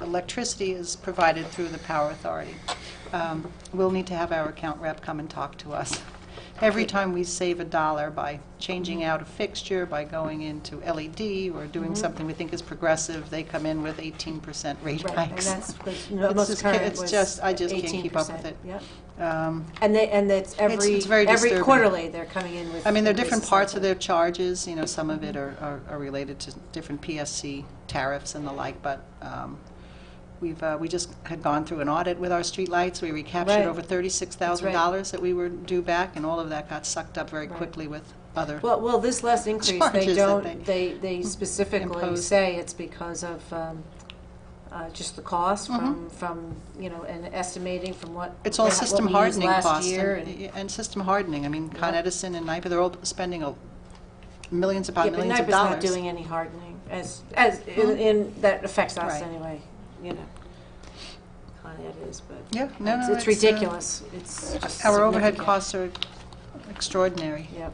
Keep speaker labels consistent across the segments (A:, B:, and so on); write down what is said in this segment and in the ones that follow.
A: electricity is provided through the Power Authority. Um, We'll need to have our account rep come and talk to us. Every time we save a dollar by changing out a fixture, by going into LED, or doing
B: Mm-hmm.
A: something we think is progressive, they come in with 18% rate
B: Right, and
A: hikes.
B: that's, the no,
A: It's
B: most
A: just ca-
B: current
A: it's
B: was
A: just- I just can't keep up
B: 18%,
A: with it.
B: Yep.
A: Um,
B: And they, and it's every,
A: it's very
B: every
A: disturbing.
B: quarterly, they're coming in with.
A: I mean, there are different
B: increases
A: parts of
B: like
A: their charges, you know, some of it are- are are related to different PSC tariffs and the like, but um, we've, uh, we just had gone through an audit with our streetlights, we recaptured
B: Right.
A: over $36,000 that we were due back, and all of that got sucked up very
B: Right.
A: quickly with other,
B: that. Well, well, this last increase,
A: Charges
B: they
A: that they
B: don't, they, they specifically
A: impose.
B: say it's because of, um, uh, just the cost from, from, you know, and estimating from what.
A: Mm-hmm. it's all
B: what we
A: system
B: used
A: hardening
B: Last
A: costs.
B: year
A: and-
B: and
A: y- And system hardening, I mean, Con
B: Yep.
A: Edison and NIPA, they're all spending a- millions
B: Yeah,
A: upon
B: but
A: millions of
B: NIPA's
A: dollars. Mm-hmm.
B: not doing any hardening, as, as, in, in- that affects us
A: Right.
B: anyway, you know. Con Ed is, but.
A: Yeah, no,
B: it's-
A: no,
B: It's
A: it's, uh,
B: ridiculous, it's just.
A: Our overhead
B: significant.
A: costs are extraordinary.
B: Yep.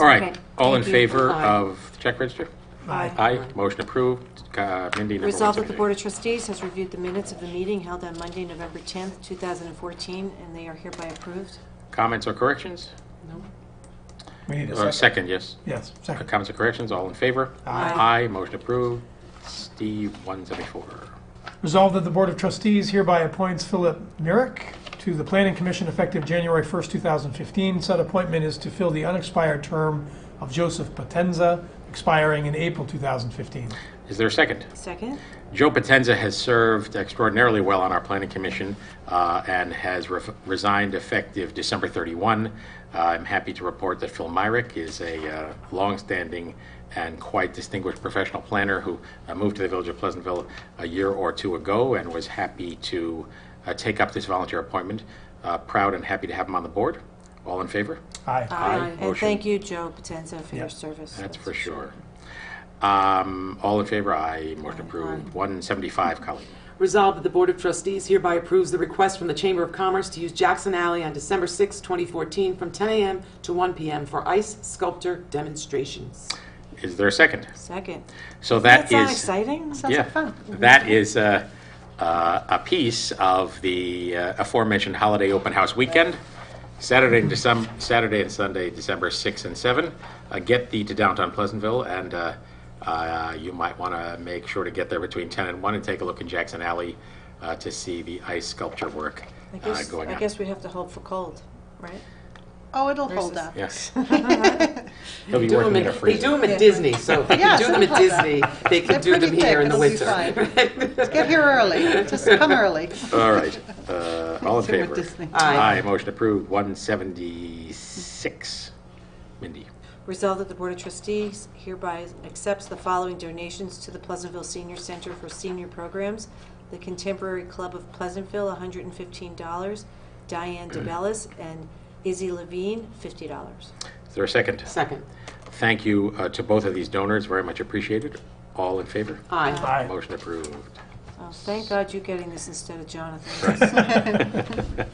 C: All right,
D: Okay.
C: all in
D: Thank you.
C: favor
D: Aye.
C: of the check register?
B: Aye.
C: Aye, motion approved. Uh, Mindy, number
B: Resolved that the
C: 178.
B: Board of Trustees has reviewed the minutes of the meeting held on Monday, November 10th, 2014, and they are hereby approved.
C: Comments or corrections?
E: We need
C: Uh,
E: a second.
C: Second, yes.
E: Yes,
C: Uh,
E: second.
C: Comments or corrections, all in favor?
B: Aye.
C: Aye, motion approved. Steve, 174.
E: Resolved that the Board of Trustees hereby appoints Philip Merrick to the Planning Commission effective January 1st, 2015. Said appointment is to fill the unexpired term of Joseph Potenza, expiring in April 2015.
C: Is there a second?
B: Second?
C: Joe Potenza has served extraordinarily well on our planning commission uh, and has re- resigned effective December 31. Uh, I'm happy to report that Phil Myrick is a uh, longstanding and quite distinguished professional planner who uh, moved to the village of Pleasantville a year or two ago and was happy to uh, take up this volunteer appointment. Uh, proud and happy to have him on the board. All in favor?
E: Aye.
B: And
C: Motion.
B: thank you, Joe Potenza, for your
E: Yep.
B: service.
C: That's for sure. Um, all in favor? Aye. Motion approved. 175, Colleen.
D: Resolved that the Board of Trustees hereby approves the request from the Chamber of Commerce to use Jackson Alley on December 6, 2014, from 10 a.m. to 1 p.m. for ice sculpture demonstrations.
C: Is there a second?
B: Second.
C: So that
B: Doesn't
C: is-
B: sound exciting?
A: Sounds like fun.
B: Mm-hmm.
C: That is uh, uh, a piece of the uh, aforementioned holiday open house weekend, Saturday and December, Saturday and Sunday, December 6 and 7. Uh, get thee to downtown Pleasantville, and uh, uh, you might want to make sure to get there between 10 and 1 and take a look in Jackson Alley uh, to see the ice sculpture work
B: I
C: uh,
B: guess,
C: going
B: I
C: on.
B: guess we have to hope for cold, right?
A: Oh, it'll hold
B: Versus-
A: up.
C: Yes. He'll be
D: Do
C: working
D: 'em
C: in a
D: at- They do
C: freezer.
D: them at Disney, so if they
A: Yeah,
D: can do them at Disney, they can
A: They're
D: do them
A: pretty thick,
D: here in the
A: it'll be
D: winter.
A: fine. Get here early, just come early.
C: All right. Uh, all in
A: See what
C: favor?
A: Disney-
D: Aye.
C: Aye. Motion approved. 176. Mindy.
B: Resolved that the Board of Trustees hereby accepts the following donations to the Pleasantville Senior Center for Senior Programs. The Contemporary Club of Pleasantville, $115. Diane DeBellis and Izzy Levine, $50.
C: Is there a second?
D: Second.
C: Thank you uh, to both of these donors, very much appreciated. All in favor?
D: Aye.
E: Aye.
C: Motion approved.
B: Oh, thank God you're getting this instead of Jonathan.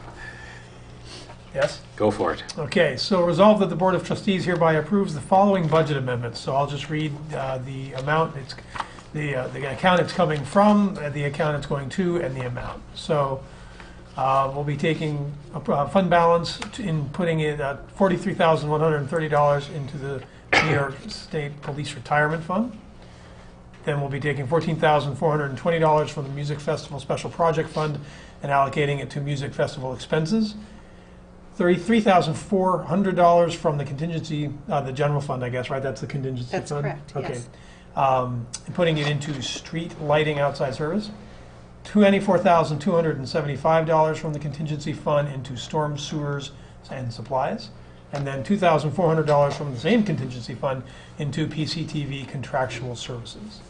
E: Yes?
C: Go for it.
E: Okay, so resolved that the Board of Trustees hereby approves the following budget amendments. So I'll just read uh, the amount, it's, the, uh, the account it's coming from, uh, the account it's going to, and the amount. So uh, we'll be taking a pro- uh, fund balance to- in putting it at $43,130 into the New York State Police Retirement Fund. Then we'll be taking $14,420 from the Music Festival Special Project Fund and allocating it to music festival expenses. $33,400 from the contingency, uh, the general fund, I guess, right? That's the contingency fund?
A: That's correct,
E: Okay.
A: yes.
E: Um, and Putting it into street lighting outside service. $24,275 from the contingency fund into storm sewers and supplies. And then $2,400 from the same contingency fund into PCTV contractual services.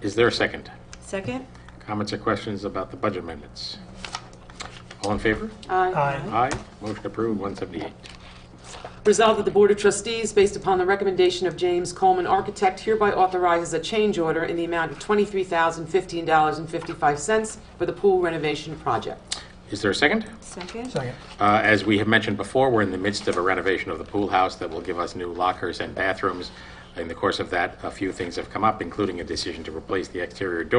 C: Is there a second?
B: Second?
C: Comments or questions about the budget amendments? All in favor?
E: Aye.
C: Aye. Motion approved, 178.
D: Resolved that the Board of Trustees, based upon the recommendation of James Coleman, architect, hereby authorizes a change order in the amount of $23,015.55 for the pool renovation project.
C: Is there a second?
B: Second?
E: Second.
C: Uh, As we have mentioned before, we're in the midst of a renovation of the pool house that will give us new lockers and bathrooms. In the course of that, a few things have come up, including a decision to replace the exterior door.